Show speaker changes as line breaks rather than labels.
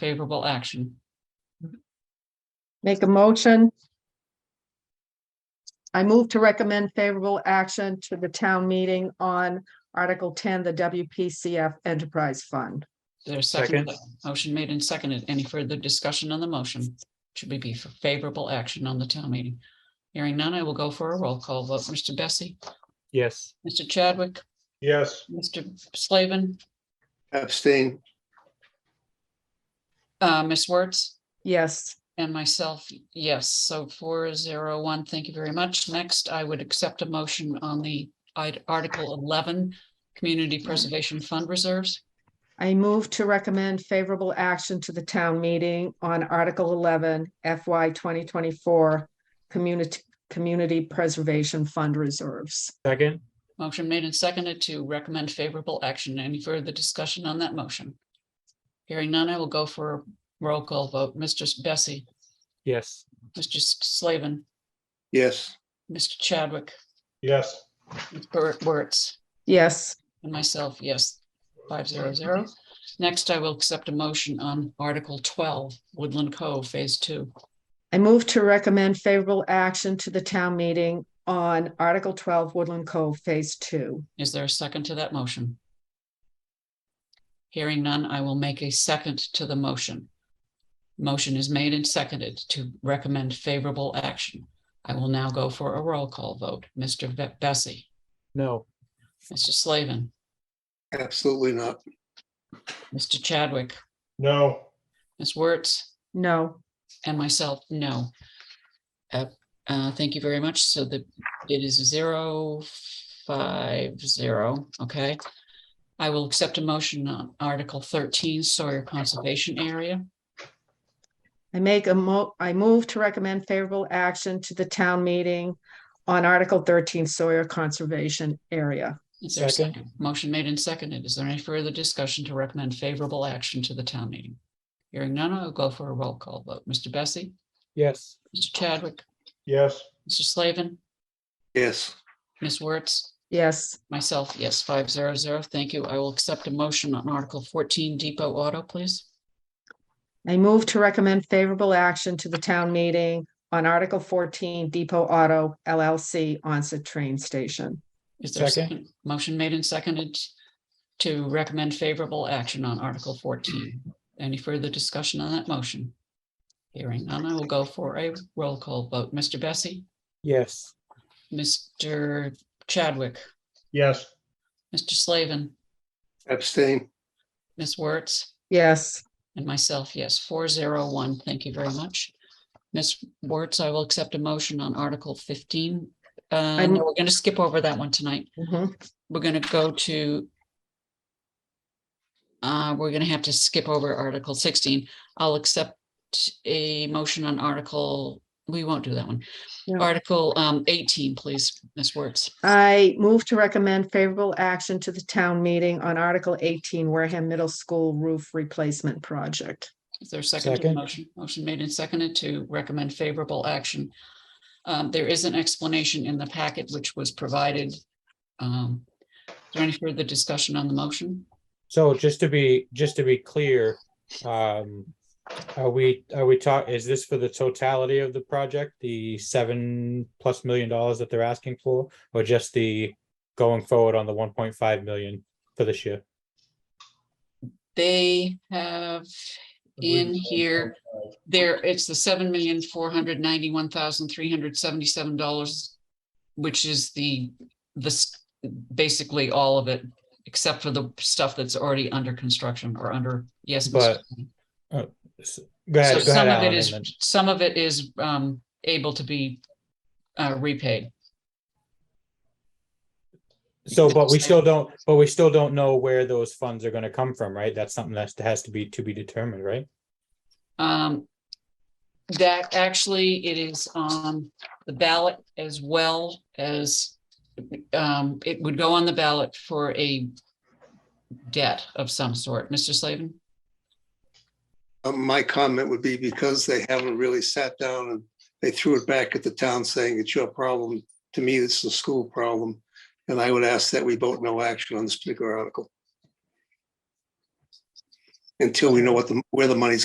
favorable action.
Make a motion. I move to recommend favorable action to the town meeting on Article ten, the WPCF Enterprise Fund.
There's second, motion made and seconded. Any further discussion on the motion? Should we be for favorable action on the town meeting? Hearing none, I will go for a roll call vote. Mr. Bessie,
Yes.
Mr. Chadwick,
Yes,
Mr. Slavin,
Abstain,
uh, Ms. Wertz,
Yes,
and myself, yes. So four zero one, thank you very much. Next, I would accept a motion on the I'd- Article eleven, Community Preservation Fund Reserves.
I move to recommend favorable action to the town meeting on Article eleven FY twenty twenty-four Community, Community Preservation Fund Reserves.
Second?
Motion made and seconded to recommend favorable action. Any further discussion on that motion? Hearing none, I will go for a roll call vote. Mr. S- Bessie,
Yes.
Mr. S- Slavin,
yes,
Mr. Chadwick,
yes,
Bert Wertz,
Yes,
and myself, yes, five zero zero. Next, I will accept a motion on Article twelve, Woodland Cove Phase Two.
I move to recommend favorable action to the town meeting on Article twelve Woodland Cove Phase Two.
Is there a second to that motion? Hearing none, I will make a second to the motion. Motion is made and seconded to recommend favorable action. I will now go for a roll call vote. Mr. Ve- Bessie,
No.
Mr. Slavin,
absolutely not.
Mr. Chadwick,
no,
Ms. Wertz,
No,
and myself, no. Uh, uh, thank you very much. So the, it is zero, five, zero, okay? I will accept a motion on Article thirteen Sawyer Conservation Area.
I make a mo, I move to recommend favorable action to the town meeting on Article thirteen Sawyer Conservation Area.
Is there a
Second.
second? Motion made and seconded. Is there any further discussion to recommend favorable action to the town meeting? Hearing none, I'll go for a roll call vote. Mr. Bessie,
Yes.
Mr. Chadwick,
yes,
Mr. Slavin,
Yes,
Ms. Wertz,
Yes,
myself, yes, five zero zero. Thank you. I will accept a motion on Article fourteen Depot Auto, please.
I move to recommend favorable action to the town meeting on Article fourteen Depot Auto LLC onset train station.
Is there a
Second.
second? Motion made and seconded to recommend favorable action on Article fourteen. Any further discussion on that motion? Hearing none, I will go for a roll call vote. Mr. Bessie,
Yes.
Mr. Chadwick,
yes,
Mr. Slavin,
abstain,
Ms. Wertz,
Yes,
and myself, yes, four zero one. Thank you very much. Ms. Wertz, I will accept a motion on Article fifteen. Uh,
I'm-
no, we're gonna skip over that one tonight.
mhm.
we're gonna go to. Uh, we're gonna have to skip over Article sixteen. I'll accept a motion on Article, we won't do that one.
No.
Article um eighteen, please, Ms. Wertz.
I move to recommend favorable action to the town meeting on Article eighteen Wareham Middle School Roof Replacement Project.
Is there a second to the
Second.
motion? Motion made and seconded to recommend favorable action. Um, there is an explanation in the packet which was provided. Um, is there any further discussion on the motion?
So just to be, just to be clear, um, are we, are we talk, is this for the totality of the project? The seven plus million dollars that they're asking for? Or just the going forward on the one point five million for this year?
They have in here There, it's the seven million, four hundred ninety-one thousand, three hundred seventy-seven dollars, which is the, this, basically all of it, except for the stuff that's already under construction or under, yes. Mr.
But-
Chairman.
Go
So
ahead, go
some
ahead,
of it
Alan.
is,
and then-
some of it is, um, able to be, uh, repaid.
So, but we still don't, but we still don't know where those funds are gonna come from, right? That's something that has to be, to be determined, right?
Um, that actually, it is on the ballot as well as, um, it would go on the ballot for a debt of some sort. Mr. Slavin?
Uh, my comment would be because they haven't really sat down and they threw it back at the town saying it's your problem. To me, it's the school problem. And I would ask that we vote no action on this particular article. Until we know what the, where the money's